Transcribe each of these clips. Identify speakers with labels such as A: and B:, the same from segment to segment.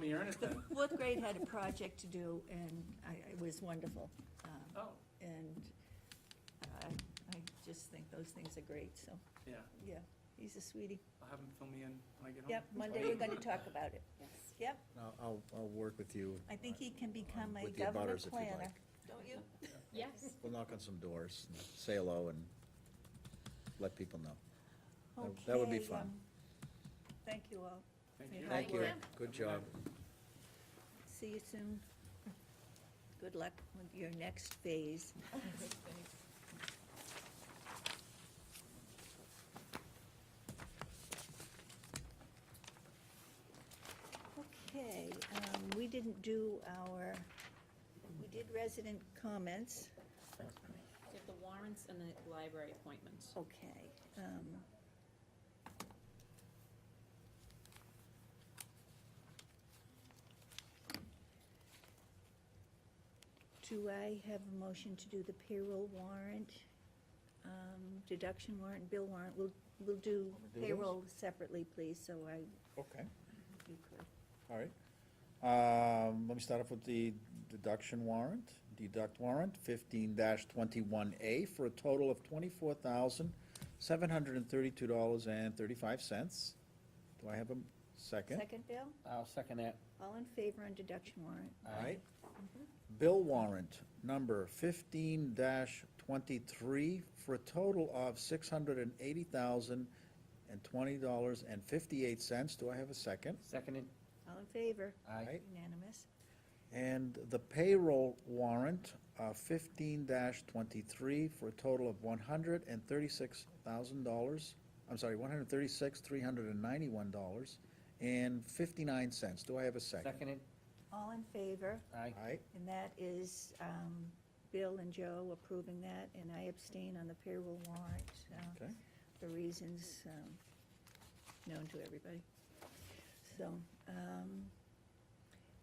A: me earnest then?
B: Fourth grade had a project to do, and I, it was wonderful. um,
A: Oh,
B: And I, I just think those things are great, so,
A: yeah,
B: yeah, he's a sweetie.
A: I'll have him fill me in when I get home.
B: Yep, Monday we're gonna talk about it.
C: Yes.
B: Yep,
D: I'll, I'll, I'll work with you.
B: I think he can become a
D: With the abutters, if
B: government
D: you'd
B: planner,
D: like.
B: don't you?
C: Yes.
D: We'll knock on some doors, and say hello, and let people know. That-
B: Okay.
D: that would be fun.
B: um, Thank you all.
A: Thank
B: Say
A: you.
B: hi.
D: Thank you,
C: Yeah.
D: good job.
B: See you soon. Good luck with your next phase. Okay, um, we didn't do our, we did resident comments,
C: We have the warrants and the library appointments.
B: okay. um, Do I have a motion to do the payroll warrant, um, deduction warrant, and bill warrant? We'll, we'll do
D: Want me to do those?
B: payroll separately, please, so I,
D: Okay,
B: you could.
D: all right. Um, let me start off with the deduction warrant, deduct warrant, fifteen twenty-one A, for a total of twenty-four thousand, seven hundred and thirty-two dollars and thirty-five cents. Do I have a m- second?
B: Second, Bill?
E: I'll second that.
B: All in favor on deduction warrant?
D: All right. Bill warrant number fifteen twenty-three for a total of six hundred and eighty thousand and twenty dollars and fifty-eight cents. Do I have a second?
E: Seconded.
B: All in favor?
D: Aye.
B: Unanimous.
D: And the payroll warrant fifteen twenty-three for a total of one hundred and thirty-six thousand dollars, I'm sorry, one hundred and thirty-six, three hundred and ninety-one dollars and fifty-nine cents. Do I have a second?
E: Seconded.
B: All in favor?
E: Aye.
D: Aye.
B: And that is um, Bill and Joe approving that, and I abstain on the payroll warrant, uh,
D: Okay.
B: for reasons um, known to everybody. So, um,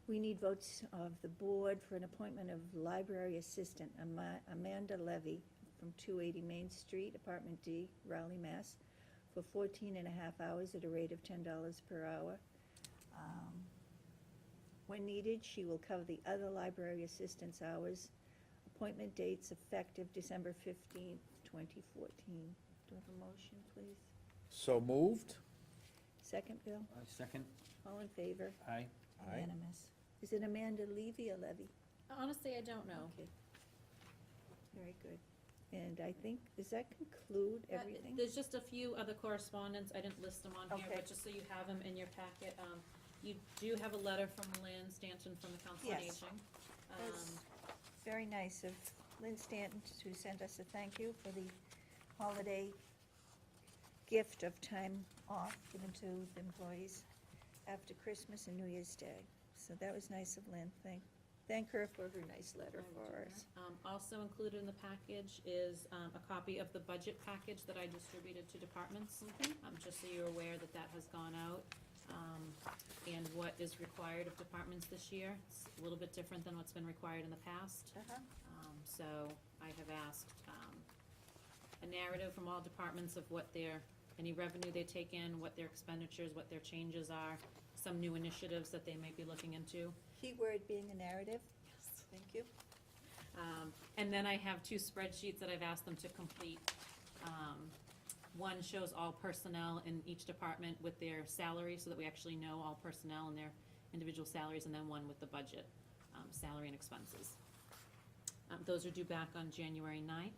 B: we need votes of the board for an appointment of library assistant Ama- Amanda Levy from 280 Main Street, Apartment D, Raleigh, Mass., for 14 and a half hours at a rate of $10 per hour. Um, when needed, she will cover the other library assistance hours. Appointment dates effective December fifteenth, twenty fourteen. Do I have a motion, please?
D: So moved?
B: Second, Bill?
E: I second.
B: All in favor?
E: Aye.
D: Aye.
B: Unanimous. Is it Amanda Levy or Levy?
C: Honestly, I don't know.
B: Okay. Very good. And I think, does that conclude
C: Uh,
B: everything?
C: There's just a few other correspondence, I didn't list them on here,
B: Okay.
C: but just so you have them in your packet, um, you do have a letter from Lynn Stanton from the Council on
B: Yes.
C: Aging.
B: That's
C: Um,
B: very nice of Lynn Stanton to send us a thank you for the holiday gift of time off given to the employees after Christmas and New Year's Day. So that was nice of Lynn. Thank, thank her for her nice letter for us.
C: Um, also included in the package is, um, a copy of the budget package that I distributed to departments. Um, just so you're aware that that has gone out, um, and what is required of departments this year. It's a little bit different than what's been required in the past.
B: Uh-huh.
C: Um, so I have asked, um, a narrative from all departments of what their, any revenue they take in, what their expenditures, what their changes are, some new initiatives that they might be looking into.
B: Key word being a narrative. Thank you.
C: Um, and then I have two spreadsheets that I've asked them to complete. Um, one shows all personnel in each department with their salary, so that we actually know all personnel and their individual salaries, and then one with the budget, um, salary and expenses. Um, those are due back on January 9th,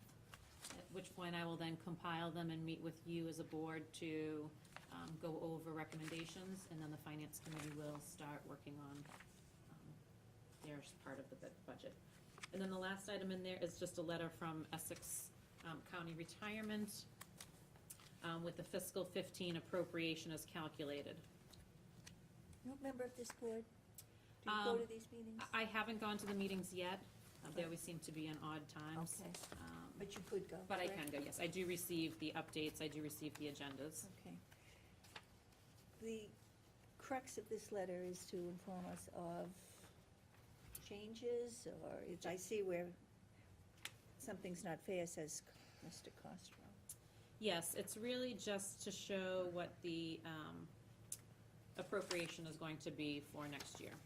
C: at which point I will then compile them and meet with you as a board to, um, go over recommendations, and then the finance committee will start working on, um, their part of the bu- budget. And then the last item in there is just a letter from Essex um, County Retirement um, with the fiscal fifteen appropriation is calculated.
B: You a member of this board? Do you go
C: Um,
B: to these meetings?
C: I I haven't gone to the meetings yet. Uh, They always seem to be in odd times.
B: Okay,
C: Um,
B: but you could go.
C: But I
B: correct?
C: can go, yes. I do receive the updates. I do receive the agendas.
B: Okay. The crux of this letter is to inform us of changes, or if I see where something's not fair, says Mr. Costro.
C: Yes, it's really just to show what the, um, appropriation is going to be for next year.